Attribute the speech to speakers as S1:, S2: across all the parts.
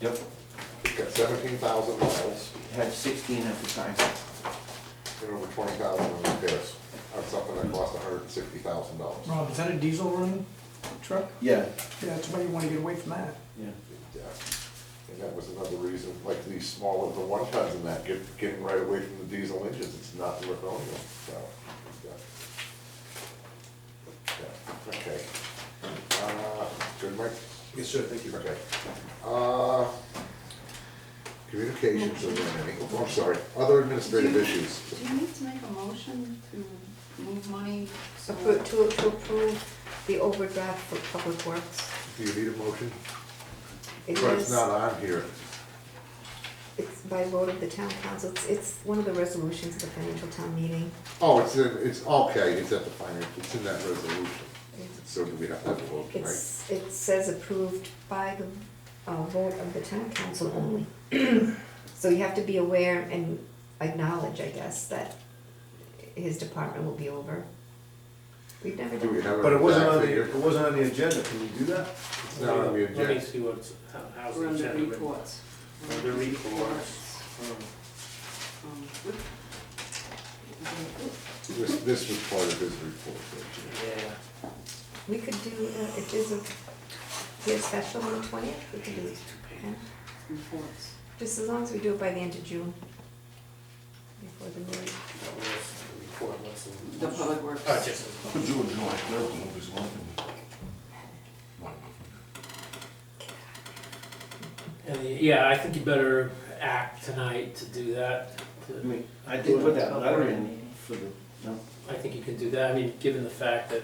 S1: Yep.
S2: Got seventeen thousand miles
S1: Had sixteen at the time.
S2: and over twenty thousand in repairs on something that cost hundred and sixty thousand dollars.
S3: Rob, is that a diesel running truck?
S1: Yeah,
S3: Yeah, that's why you wanna get away from that.
S1: yeah.
S2: And that was another reason, like these smaller, the one tons and that, get, getting right away from the diesel engines, it's not worth owning them, so. yeah. Yeah, Okay. Uh, Good, Mike? Yes, sir, thank you. Okay. Uh, Communications, are there any? Oh, I'm sorry, other administrative
S4: Do you-
S2: issues.
S4: Do you need to make a motion to move money? so-
S5: Appro- To, to approve the overdraft for public works.
S2: Do you need a motion?
S5: It
S2: But it's
S5: is,
S2: not on here.
S5: it's by vote of the town council, it's, it's one of the resolutions of the financial town meeting.
S2: Oh, it's in, it's, okay, it's at the finance, it's in that resolution. So do we have to have a vote tonight?
S5: It's, it says approved by the, uh, vote of the town council only. So you have to be aware and acknowledge, I guess, that his department will be over. We've never
S2: Do
S5: done
S2: we
S5: that.
S2: have
S6: But it
S2: an
S6: wasn't on
S2: exact
S6: the,
S2: figure?
S6: it wasn't on the agenda, can we do that?
S2: It's not on the
S7: Let me
S2: agenda.
S7: see what's, how- how's the
S4: We're under
S7: agenda written.
S4: reports.
S7: Under reports.
S4: Um, we-
S2: This, this was part of his report. actually.
S7: Yeah,
S5: We could do, uh, if there's a, there's special on the twentieth, we could do, yeah.
S4: Reports.
S5: Just as long as we do it by the end of June. Before the new,
S7: that was the report, what's the?
S4: The public works.
S7: Oh, just the public.
S8: June, July, third, the movie's one
S7: And the- Yeah, I think you better act tonight to do that.
S1: I
S7: to-
S1: mean, I did put that letter in for the, no,
S7: I think you can do that, I mean, given the fact that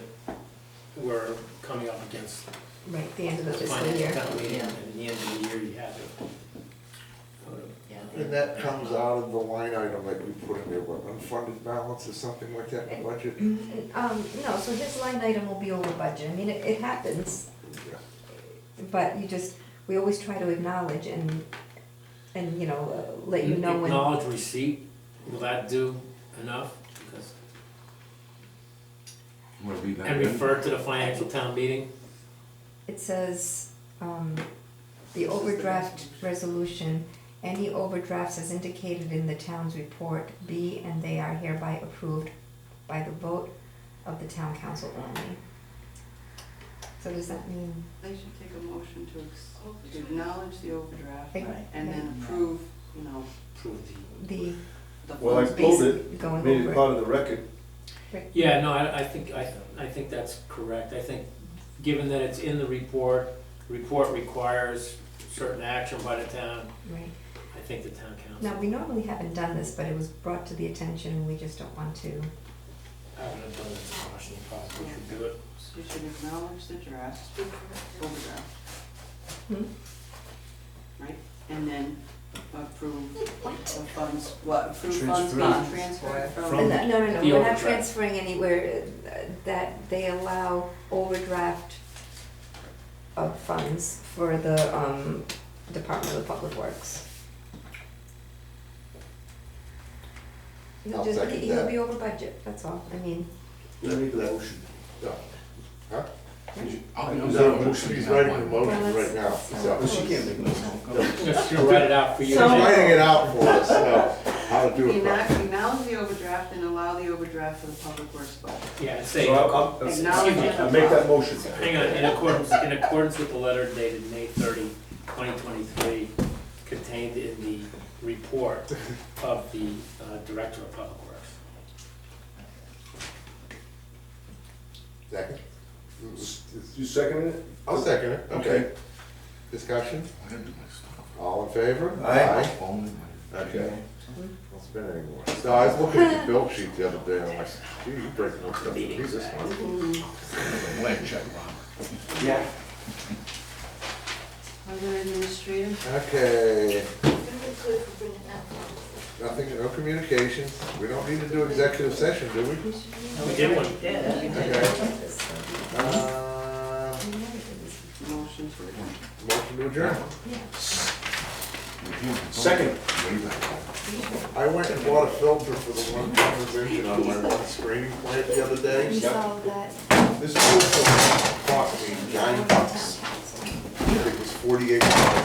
S7: we're coming up against
S5: right, the end of the fiscal
S7: financial
S5: year.
S7: town meeting, and at the end of the year, you have to. go to-
S2: And that comes out of the line item that we put in there, what, unfunded balance or something like that in the budget?
S5: Um, no, so his line item will be over budget, I mean, it, it happens,
S2: Yeah.
S5: but you just, we always try to acknowledge and, and, you know, uh, let you know when.
S7: Acknowledge receipt, will that do enough? Because
S8: Wanna leave that
S7: And
S8: in?
S7: refer to the financial town meeting?
S5: It says, um, the overdraft resolution, any overdrafts as indicated in the town's report be and they are hereby approved by the vote of the town council only. So does that mean,
S4: They should take a motion to ex- to acknowledge the overdraft
S5: Right.
S4: and then approve, you know,
S7: Prove the-
S5: the,
S4: the
S6: Well, I
S4: funds.
S6: pulled it,
S5: going
S6: made it
S5: over,
S6: part of the record.
S7: Yeah, no, I, I think, I, I think that's correct. I think, given that it's in the report, report requires certain action by the town,
S5: right?
S7: I think the town council.
S5: Now, we normally haven't done this, but it was brought to the attention and we just don't want to.
S7: I would have done it in Washington, probably should do it.
S4: You should acknowledge the draft, overdraft.
S5: Hmm?
S4: Right, and then approve the
S5: What?
S4: funds, what, approve funds
S6: Transfer.
S4: being transferred
S5: No,
S7: From-
S4: from.
S5: no, no,
S7: The
S5: we're not
S7: overdraft.
S5: transferring anywhere, uh, that they allow overdraft of funds for the, um, Department of Public Works. He'll
S2: I'll
S5: just,
S2: second
S5: he- he'll
S2: that.
S5: be over budget, that's all, I mean,
S6: I need a motion.
S2: Yeah. Huh?
S8: I'll be on
S2: He's
S8: that
S2: writing-
S8: motion.
S2: He's writing the
S5: well,
S2: motion right
S5: let's-
S2: now,
S5: let's not
S2: so.
S6: Well, she can't make
S5: close.
S6: motion.
S7: I'm just gonna write it out for you.
S2: He's
S4: So-
S2: writing it out for us, so how to do it.
S4: Acknow-
S2: properly.
S4: Acknowledge the overdraft and allow the overdraft for the public works budget.
S7: Yeah, and say,
S6: So I'll, I'll- I'll-
S4: Acknowledge it.
S6: I'll make that motion.
S7: hang on, in accordance, in accordance with the letter dated May 30, 2023, contained in the report of the uh, Director of Public Works.
S2: Second?
S6: You seconded it?
S2: I'll second it, okay. Discussion, all in favor?
S6: Aye.
S2: Okay. Don't spend any more. So I was looking at the bill sheet the other day, and I'm like, gee, you break more stuff than me this one.
S4: Mm.
S8: Blank check, Ron.
S1: yeah.
S4: Other administrative?
S2: Okay. Nothing, no communications. We don't need to do executive session, do we?
S7: We did one.
S2: Okay. Uh,
S4: Motion to adjourn.
S2: Motion to adjourn.
S6: Second.
S2: I went and bought a filter for the one conversation on my one screening plant the other day.
S5: We saw that.
S2: This filter cost me nine bucks. It was forty-eight dollars.